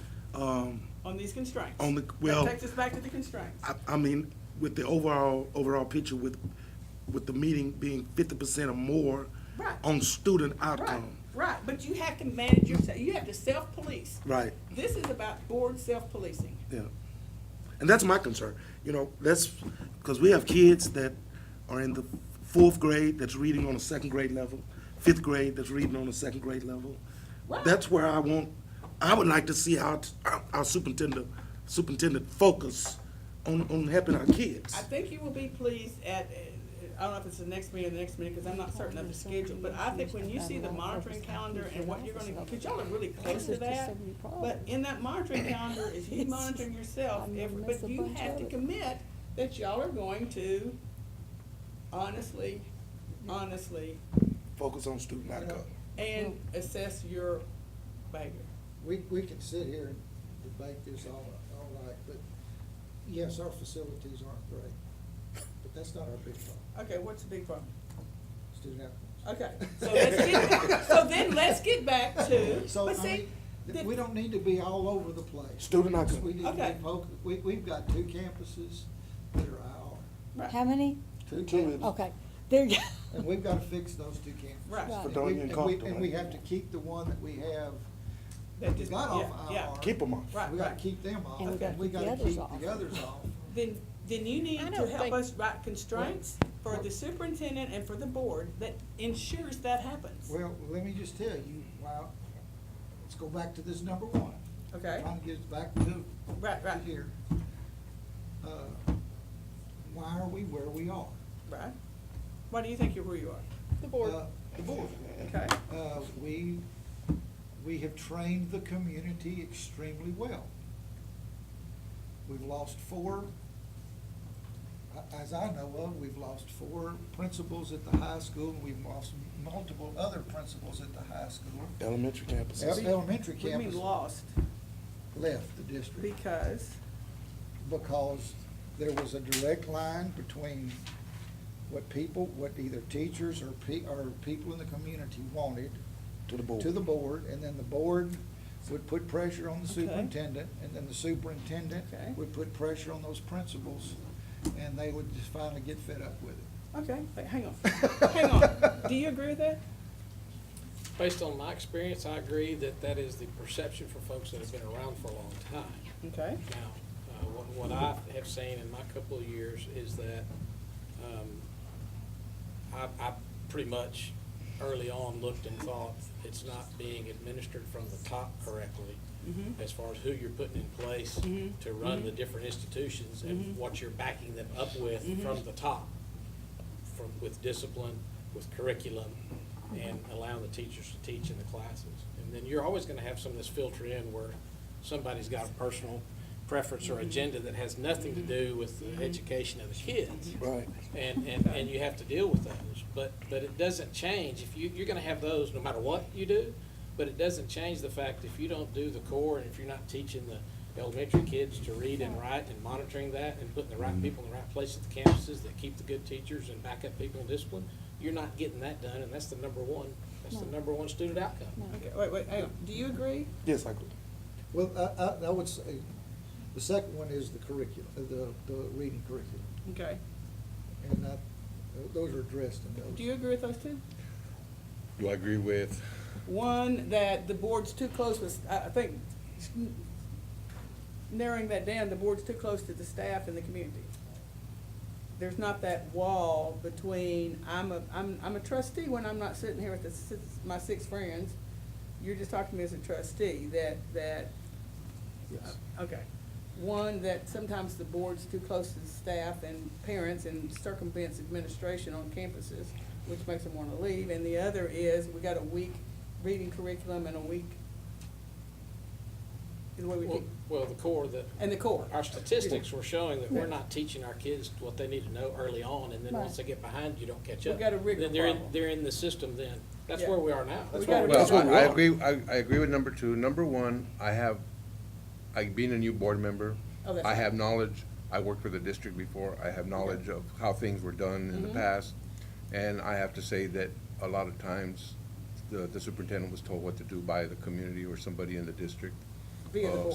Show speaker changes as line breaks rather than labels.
um,
on these constraints.
On the-
That
well-
takes us back to the constraints.
I, I mean, with the overall, overall picture with, with the meeting being fifty percent or more
Right.
on student
Right,
outcome.
right, but you have to manage yourself, you have to self-police.
Right,
This is about board self-policing.
yeah. And that's my concern, you know, that's, because we have kids that are in the fourth grade that's reading on a second grade level, fifth grade that's reading on a second grade level.
Right.
That's where I want, I would like to see our, our superintendent, superintendent focus on, on helping our kids.
I think you will be pleased at, uh, I don't know if it's the next meeting or the next meeting, because I'm not certain of the schedule, but I think when you see the monitoring calendar and what you're gonna, because y'all are really close to that. But in that monitoring calendar is you monitoring yourself, every- but you have to commit that y'all are going to honestly, honestly,
Focus on student outcome.
and assess your behavior.
We, we could sit here and debate this all, all night, but yes, our facilities aren't great, but that's not our big problem,
Okay, what's the big problem?
student outcomes.
Okay, so let's get, so then let's get back to,
So,
Uh, but
I
see,
mean, th-
the-
we don't need to be all over the place.
Student outcome.
We need to
Okay.
be poc- we, we've got two campuses that are IR,
right.
How many?
two
Two is-
campuses,
Okay, there you
and we've gotta fix those two campuses.
Right.
Right.
And
Fredonia
we-
and
and we-
Compton,
And we
right?
have to keep the one that we have,
That just-
got off
yeah,
IR.
Keep them on.
Right,
We gotta
right.
keep them off,
And we
and we
gotta
gotta
keep the
keep
others
the
off.
others off.
Then, then you need
I
to
don't
help
think-
us write constraints for the superintendent and for the board that ensures that happens.
Well, let me just tell you, well, let's go back to this number one.
Okay.
Trying to get us back to.
Right,
to
right.
Here. Uh, Why are we where we are?
Right? Why do you think you're where you are?
The board.
Uh, The board.
Okay,
Uh, we, we have trained the community extremely well. We've lost four, a- as I know of, we've lost four principals at the high school, and we've lost multiple other principals at the high school.
Elementary
Ele-
campuses.
Elementary
we mean
campus
lost
left the district
because,
because there was a direct line between what people, what either teachers or pe- or people in the community wanted
To the board.
to the board, and then the board would put pressure on the
Okay.
superintendent, and then the superintendent
Okay.
would put pressure on those principals, and they would just finally get fed up with it.
okay, wait, hang on, hang on. Do you agree with that?
Based on my experience, I agree that that is the perception for folks that have been around for a long time.
Okay,
Now, uh, what, what I have seen in my couple of years is that, um, I, I pretty much early on looked and thought it's not being administered from the top correctly as far as who you're putting in place to run the different institutions and what you're backing them up with from the top. From, with discipline, with curriculum, and allowing the teachers to teach in the classes. And then you're always gonna have some of this filter in where somebody's got a personal preference or agenda that has nothing to do with the education of the kids
Right.
and, and, and you have to deal with those. But, but it doesn't change, if you, you're gonna have those no matter what you do, but it doesn't change the fact if you don't do the core and if you're not teaching the elementary kids to read and write and monitoring that and putting the right people in the right place at the campuses that keep the good teachers and back up people in discipline, you're not getting that done, and that's the number one, that's the
No.
number one student outcome.
okay, wait, wait, hang on. Do you agree?
Yes, I agree.
Well, I, I, I would say, the second one is the curriculum, uh, the, the reading curriculum,
Okay.
and that, those are addressed in those.
Do you agree with those two?
Do I agree with?
One, that the board's too close with, I, I think, narrowing that down, the board's too close to the staff and the community. There's not that wall between, I'm a, I'm, I'm a trustee when I'm not sitting here with the, six- my six friends. You're just talking to me as a trustee, that, that,
Yes.
okay. One, that sometimes the board's too close to the staff and parents and circumvents administration on campuses, which makes them wanna leave. And the other is, we got a weak reading curriculum and a weak, the way we
Well,
keep,
well, the core, the,
and the core.
our statistics were showing that we're not teaching our kids what they need to know early on, and then
Right.
once they get behind, you don't catch
We've
up.
got a rigor
Then they're in,
problem.
they're in the system then. That's
Yeah.
where we are now.
We
That's
got
where
a
we are.
Well, I- I
now.
agree, I, I agree with number two. Number one, I have, I, being a new board member,
Oh, that's
I
right.
have knowledge, I worked for the district before, I have knowledge of how things were done in the past. And I have to say that a lot of times, the, the superintendent was told what to do by the community or somebody in the district.
Via the
Uh,
board.